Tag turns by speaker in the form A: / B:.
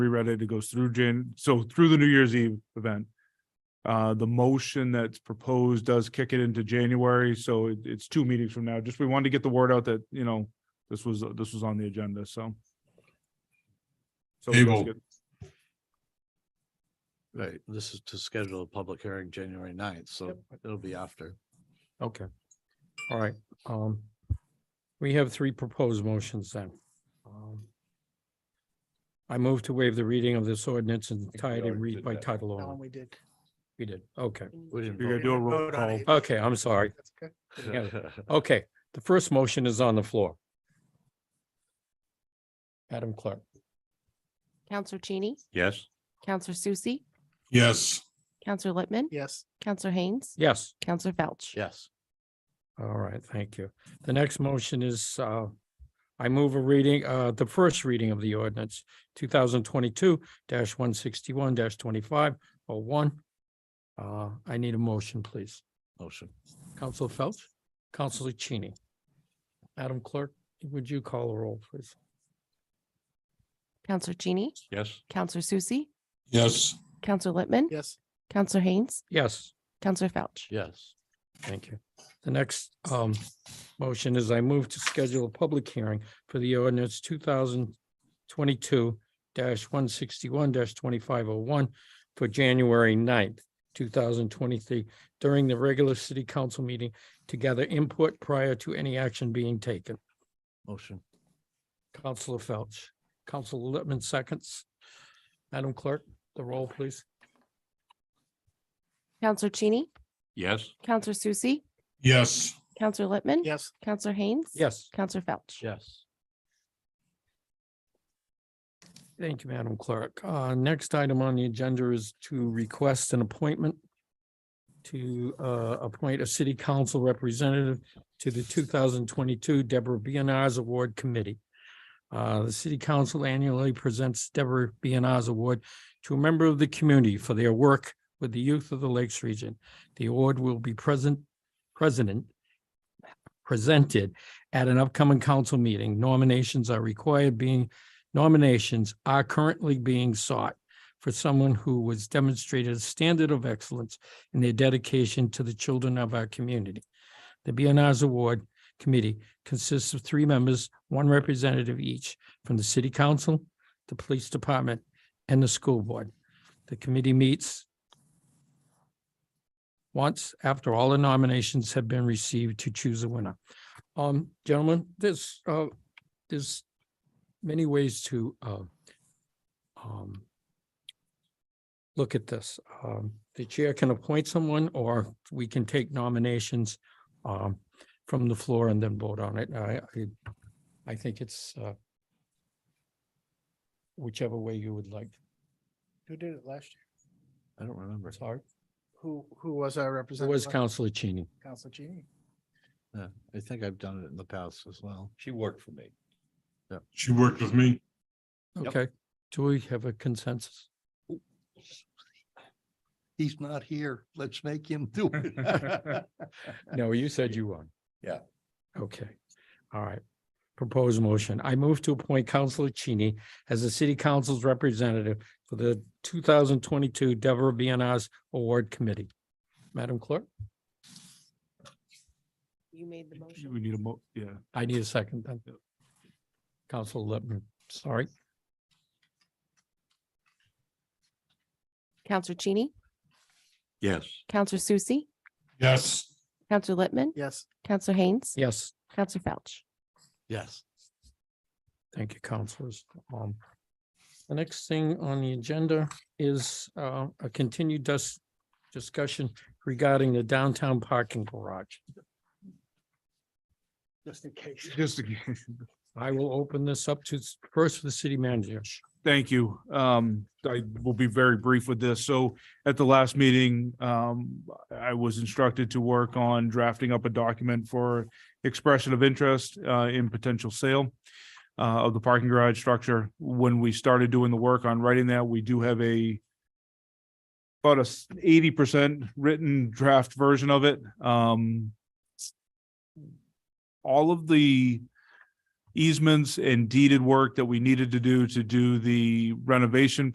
A: reread it, it goes through Jan, so through the New Year's Eve event. Uh, the motion that's proposed does kick it into January, so it, it's two meetings from now. Just, we wanted to get the word out that, you know, this was, this was on the agenda, so. So it does
B: Table.
A: get-
C: Right, this is to schedule a public hearing January 9th, so it'll be after.
D: Okay. All right. Um, we have three proposed motions then. Um, I move to waive the reading of this ordinance and
C: we
D: tie it and
C: already
D: read
C: did
D: by
C: that.
D: title
E: That one
D: only.
E: we did.
D: We did. Okay.
C: We didn't
A: You're gonna
C: vote
A: do a
E: We
A: roll
E: voted on
A: call.
E: it.
D: Okay, I'm sorry.
E: That's okay.
D: Okay, the first motion is on the floor. Adam Clark.
F: Counselor Cheney,
B: Yes.
F: Counselor Susie,
B: Yes.
F: Counselor Littman,
E: Yes,
F: Counselor Haynes,
D: Yes.
F: Counselor Felch.
C: Yes,
D: All right, thank you. The next motion is, uh, I move a reading, uh, the first reading of the ordinance, two thousand twenty-two one sixty-one twenty-five oh one. Uh, I need a motion, please.
C: motion.
D: Council Phelps, Councilor Cheney. Adam Clerk, would you call a roll, please?
F: Counselor Cheney,
B: Yes.
F: Counselor Susie,
B: Yes.
F: Counselor Littman,
E: yes,
F: Counselor Haynes,
D: Yes.
F: Counselor Felch.
C: Yes,
D: Thank you. The next um motion is I move to schedule a public hearing for the ordinance two thousand twenty-two one sixty-one twenty-five oh one for January 9th, two thousand twenty-three during the regular city council meeting to gather input prior to any action being taken.
C: motion.
D: Counselor Felch, Counselor Lippman seconds. Madam Clerk, the roll, please.
F: Counselor Cheney,
B: Yes.
F: Counselor Susie,
B: Yes.
F: Counselor Littman,
E: yes,
F: Counselor Haynes.
D: Yes.
F: Counselor Felch.
C: Yes,
D: Thank you, Madam Clerk. Uh, next item on the agenda is to request an appointment to, uh, appoint a city council representative to the two thousand twenty-two Deborah Bionars Award Committee. Uh, the city council annually presents Deborah Bionars Award to a member of the community for their work with the youth of the Lakes region. The award will be present, president, presented at an upcoming council meeting. Nominations are required, being nominations are currently being sought for someone who has demonstrated a standard of excellence in their dedication to the children of our community. The BNR's Award Committee consists of three members, one representative each from the City Council, the Police Department, and the School Board. The committee meets once after all the nominations have been received to choose a winner. Um, gentlemen, this, uh, this many ways to um, um, look at this. Um, The chair can appoint someone, or we can take nominations um, from the floor and then vote on it. I, I- I think it's uh, whichever way you would like.
E: who did it last year?
C: I don't remember.
D: Sorry,
E: Who, who was our
D: it
E: representative?
D: was
E: last-
D: Counselor Cheney.
E: Council E? Cheney.
C: Yeah, I think I've done it in the past as well.
G: She worked for me.
B: She worked with me.
C: Yep.
D: Okay, do we have a consensus?
C: He's not here. Let's make him do it.
D: No, you said you won.
G: Yeah.
D: Okay, all right. Proposed motion. I move to appoint Counselor Cheney as the city council's representative for the two thousand twenty-two Deborah BNR's Award Committee. Madam Clerk,
F: You made the
A: We need a mo, yeah.
D: I need a second then. Council Lippman, sorry.
F: Counselor Cheney,
B: Yes.
F: Counselor Susie,
B: Yes.
F: Counselor Littman,
E: Yes,
F: Counselor Haynes,
D: Yes,
F: Counselor Felch.
C: Yes,
D: thank you, counselors. Um, the next thing on the agenda is, uh, a continued dis- discussion regarding the downtown parking garage.
E: just in case.
A: Just again.
D: I will open this up to s- first for the city manager.
A: Thank you. Um, I will be very brief with this. So at the last meeting, um, I was instructed to work on drafting up a document for expression of interest, uh, in potential sale uh, of the parking garage structure. When we started doing the work on writing that, we do have a about a eighty percent written draft version of it. Um, all of the easements and deeded work that we needed to do to do the renovation